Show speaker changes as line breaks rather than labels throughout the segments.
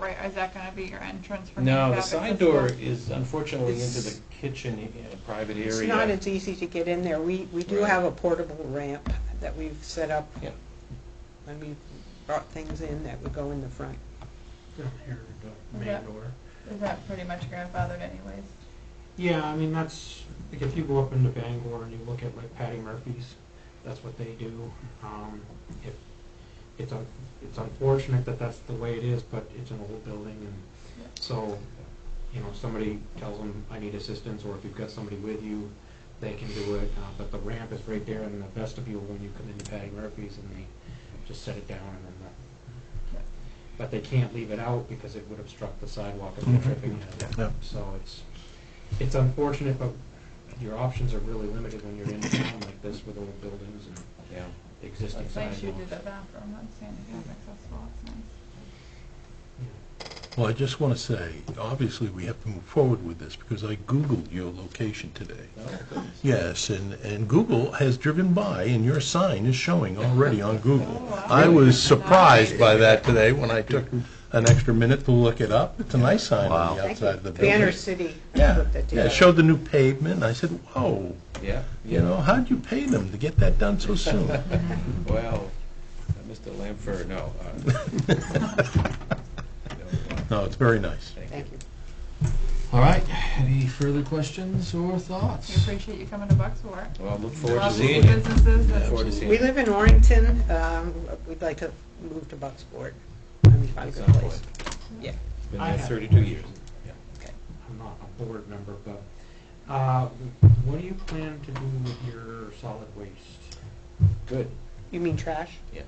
right, is that gonna be your entrance for
No,
handicap
the side door
accessible?
is unfortunately into the
It's-
kitchen, uh, private area.
It's not as easy to get in there. We, we do
Right.
have a portable ramp that we've set up
Yeah.
when we brought things in that would go in the front.
Down here, the
Yeah.
main door.
Is that pretty much grandfathered anyways?
Yeah, I mean, that's, like, if you go up into Bangor and you look at like Patty Murphy's, that's what they do. Um, if, it's un, it's unfortunate that that's the way it is, but it's an old building
Yeah.
and so, you know, if somebody tells them, I need assistance, or if you've got somebody with you, they can do it. Uh, but the ramp is right there in the vestibule when you come into Patty Murphy's and they just set it down and then the,
Yeah.
but they can't leave it out because it would obstruct the sidewalk and the tripping. hazard.
Mm-hmm. Yeah.
So it's, it's unfortunate, but your options are really limited when you're in a town like this with old buildings and
Yeah.
existing
It's nice you did
sidewalks.
the bathroom, that's handicap accessible, it's nice.
Yeah.
Well, I just want to say, obviously, we have to move forward with this, because I Googled your location today.
Oh, goodness.
Yes, and, and Google has driven by, and your sign is showing already on Google.
Oh, wow.
I was surprised by that today when I took an extra minute to look it up. It's a nice sign on the
Thank you.
outside of the building.
Banner City.
Yeah,
put that
yeah,
together.
it showed the new pavement, and I said, whoa,
Yeah,
you know, how'd you pay them to get that done so soon?
well, uh, Mr. Lamfer, no. uh, no, uh,
No, it's very nice.
Thank
Thank
you.
you.
All right, any further questions or thoughts?
We appreciate you coming to Bucksport.
Well, I look forward to
Lots of
seeing you.
Businesses
Look forward to
that,
seeing
We
you.
live in Orrington. Um, we'd like to move to Bucksport. I mean, find a
At some
good place.
point.
Yeah.
Been
I
there
have
32
one.
years.
I'm not a board member, but, uh, what do you plan to do with your solid waste?
Good.
You mean trash?
Yeah.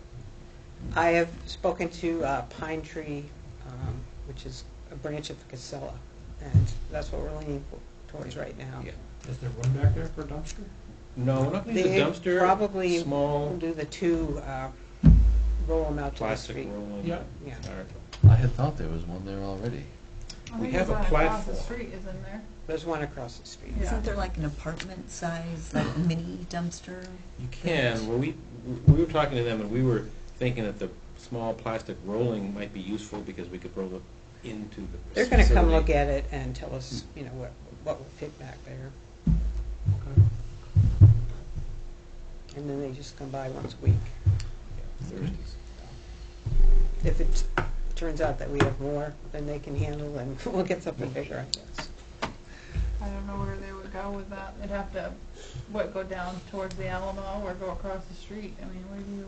I have spoken to uh, Pine Tree, um, which is a branch of Casella, and that's what we're leaning towards right now.
Yeah.
Is there room back there for a dumpster?
No, we're not going to
They
use the dumpster.
probably We'll
Small
do the two, uh, roll them out to the
plastic
street.
roll.
Yeah.
Yeah.
I had thought there was one there already.
I
We
think
have
it's
a
on across the
platform.
street, isn't there?
There's one across the street.
Yeah.
Isn't there like an apartment size, like mini dumpster?
You can, well, we, we were talking to them, and we were thinking that the small plastic rolling might be useful, because we could roll it into the facility.
They're gonna come look at it and tell us, you know, what, what will fit back there,
Okay.
and then they just come by once a week.
Yeah, Thursdays.
If it turns out that we have more than they can handle, then we'll get something bigger, I guess.
I don't know where they would go with that. They'd have to, what, go down towards the Alamo or go across the street? I mean, where do you?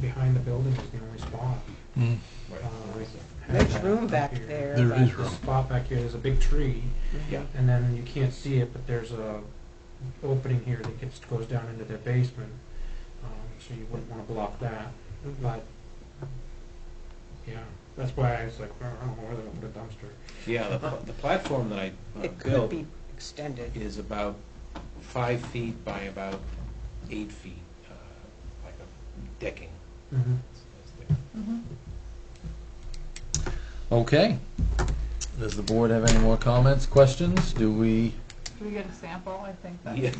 Behind the building is the only spot.
Mm.
Right.
Uh,
Oh, There's room back
here.
there.
There
but-
is
There's
room.
a spot back here, there's a big tree,
Yeah.
and then you can't see it, but there's a opening here that gets, goes down into their basement, um, so you wouldn't wanna block that, but, yeah, that's why I was like, I don't know where they're gonna put a dumpster.
Yeah, the, pl- the platform that I uh,
It could
built
be extended.
is about five feet by about eight feet, uh, like a decking.
Mm-hmm.
It's- it's there.
Mm-hmm.
Okay. Does the board have any more comments, questions? Do we?
Do we get a sample? I think that.
Yeah,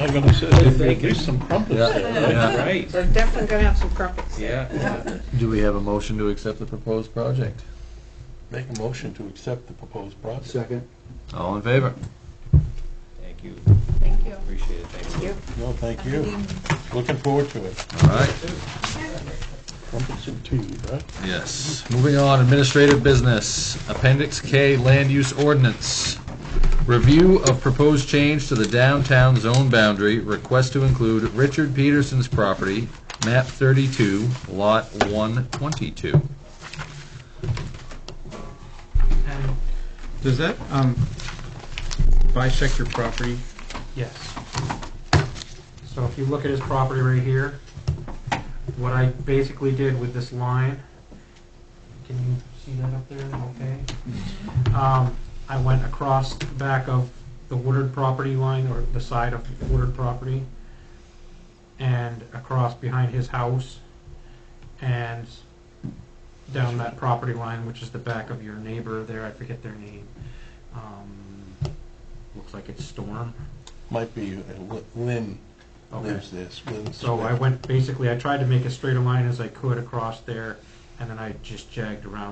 I'm going to say,
there'd be
some crumpets
Yeah.
right,
We're definitely gonna have some crumpets there.
yeah.
Do we have a motion to accept the proposed project?
Make a motion to accept the proposed project.
All in favor?
Thank you,
Thank you.
appreciate it, thank you.
No, thank you. Looking forward to it.
All right.
Crumpets and tea, right?
Yes. Moving on, administrative business, Appendix K, Land Use Ordinance. Review of proposed change to the downtown zone boundary, request to include Richard Peterson's property, map 32, lot 122.
And,
Does that um, bisect your property?
Yes. So if you look at his property right here, what I basically did with this line, can you see that up there? Okay. Um, I went across the back of the Woodard property line, or the side of the Woodard property, and across behind his house, and down that property line, which is the back of your neighbor there, I forget their name. Um, Looks like it's Storm.
Might be, uh, Lin- Lin
Okay.
lives this, Lin
So I
Smith.
went, basically, I tried to make as straight a line as I could across there, and then I just jagged around